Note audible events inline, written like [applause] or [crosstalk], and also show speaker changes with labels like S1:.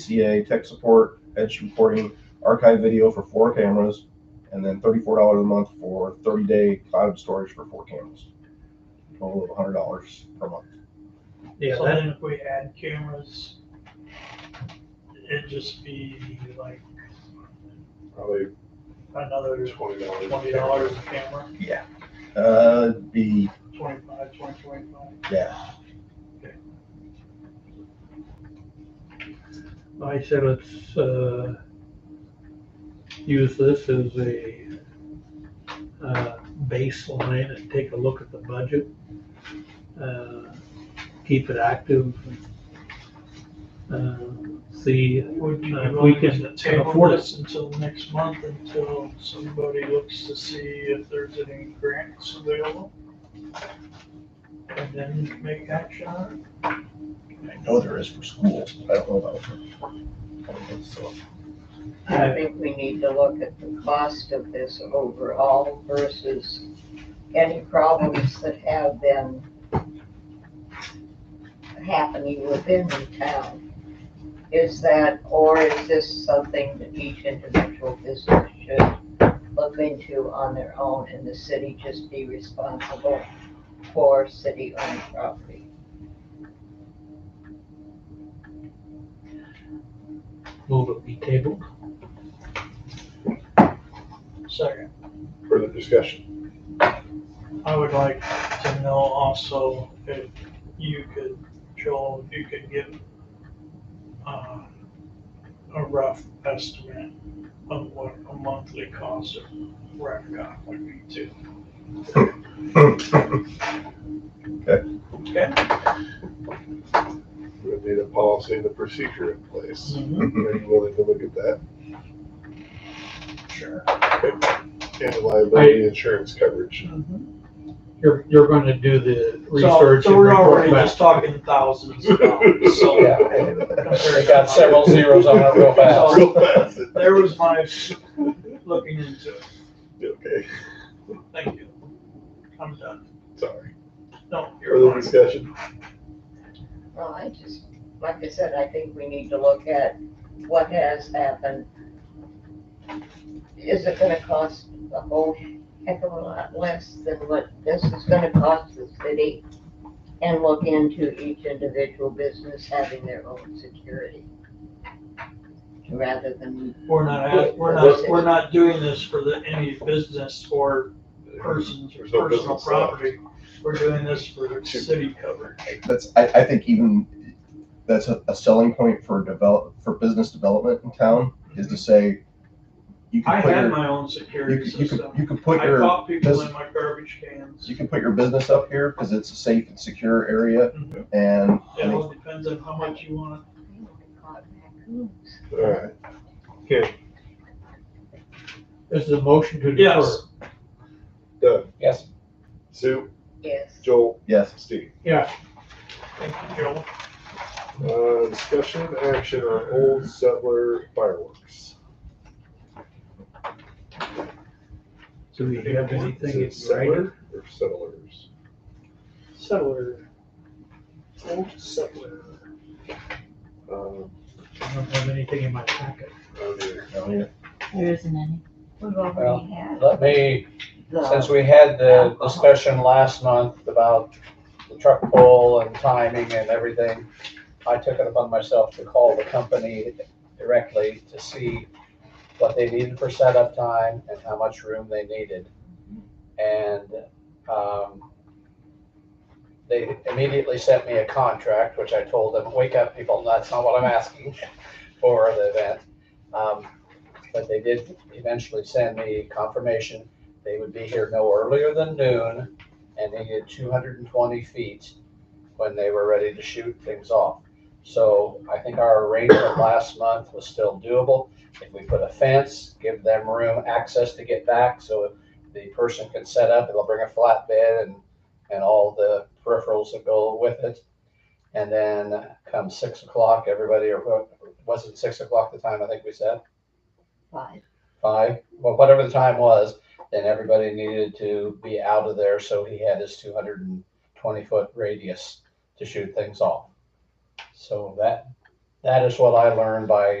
S1: VCA, tech support, edge reporting, archive video for four cameras, and then thirty-four dollars a month for thirty-day cloud storage for four cameras. Total of hundred dollars per month.
S2: Yeah,
S3: So
S2: that,
S3: then if we add cameras, it'd just be like
S4: probably
S3: another
S4: twenty dollars.
S3: twenty dollars a camera,
S1: Yeah. Uh, it'd be,
S3: twenty-five, twenty, twenty-five.
S1: yeah,
S2: I said, let's, uh, use this as a, uh, baseline and take a look at the budget. Uh, Keep it active. Uh, See,
S3: Would you
S2: Uh, we
S3: be
S2: can
S3: willing to table
S2: afford it.
S3: this until next month, until somebody looks to see if there's any grants available? And then make action on
S1: I know there is for schools, I don't know about for. [laughs] So,
S5: I think we need to look at the cost of this overall versus any problems that have been happening within the town. Is that, or is this something that each individual business should look into on their own and the city just be responsible for city-owned property?
S2: move it be tabled.
S3: it. Second,
S4: Further discussion.
S3: I would like to know also if you could, Joel, if you could give uh, a rough estimate of what a monthly cost of RecCom would be too. Okay?
S4: We would need a policy and a procedure in place.
S2: Mm-hmm.
S4: Are you willing to look at that?
S3: Sure.
S4: And liability insurance coverage.
S2: You're, you're gonna do the
S3: So,
S2: research.
S3: so
S2: and
S3: we're
S2: report
S3: already
S2: back.
S3: just talking thousands of dollars, so.
S6: Yeah.
S3: compared
S6: They
S3: to
S6: got
S3: my-
S6: several zeros on it real fast.
S4: [laughs] Real fast.
S3: There was my looking into it.
S4: Okay,
S3: Thank you. I'm done.
S4: sorry.
S3: No, you're
S4: Further
S3: fine.
S4: discussion.
S5: Well, I just, like I said, I think we need to look at what has happened. Is it gonna cost a whole heck of a lot less than what this is gonna cost the city? And look into each individual business having their own security. Rather than,
S3: We're not, we're not, we're not doing this for the, any business or persons or
S4: There's no
S3: personal
S4: business left.
S3: property. We're doing this for city coverage.
S1: that's, I, I think even, that's a, a selling point for develop, for business development in town, is to say, you
S3: I
S1: can put
S3: had
S1: your,
S3: my own
S1: you
S3: security
S1: can, you can,
S3: system.
S1: you can
S3: I
S1: put your.
S3: caught people
S1: bus-
S3: in my garbage cans.
S1: You can put your business up here because it's a safe and secure area
S3: Mhm.
S1: and I
S3: It
S1: mean,
S3: all depends on how much you want.
S4: All right.
S2: This is a motion to defer.
S3: Yes,
S4: Doug,
S6: Yes,
S4: Sue,
S5: yes.
S4: Joel,
S1: yes,
S4: Steve.
S2: Yeah,
S3: thank you, Joel.
S4: Uh, discussion action on old settler fireworks.
S2: do we have anything in
S4: Is it
S2: writing?
S4: settler Or settlers.
S2: Settler. Old settler.
S4: Um,
S2: I don't have anything in my packet.
S4: I mean,
S1: down here.
S7: There isn't any.
S5: We've
S6: already
S5: had
S6: let me, since we had the discussion last month about the truck pull and timing and everything, I took it upon myself to call the company directly to see what they needed for setup time and how much room they needed. And, um, they immediately sent me a contract, which I told them, wake up people, that's not what I'm asking for the event. Um, but they did eventually send me confirmation they would be here no earlier than noon and they needed two hundred and twenty feet when they were ready to shoot things off. So I think our arrangement last month was still doable. If we put a fence, give them room, access to get back, so the person can set up, they'll bring a flatbed and, and all the peripherals that go with it. And then come six o'clock, everybody, or was it six o'clock the time I think we said?
S5: Five.
S6: five, well, whatever the time was, then everybody needed to be out of there, so he had his two hundred and twenty foot radius to shoot things off. So that That is what I learned by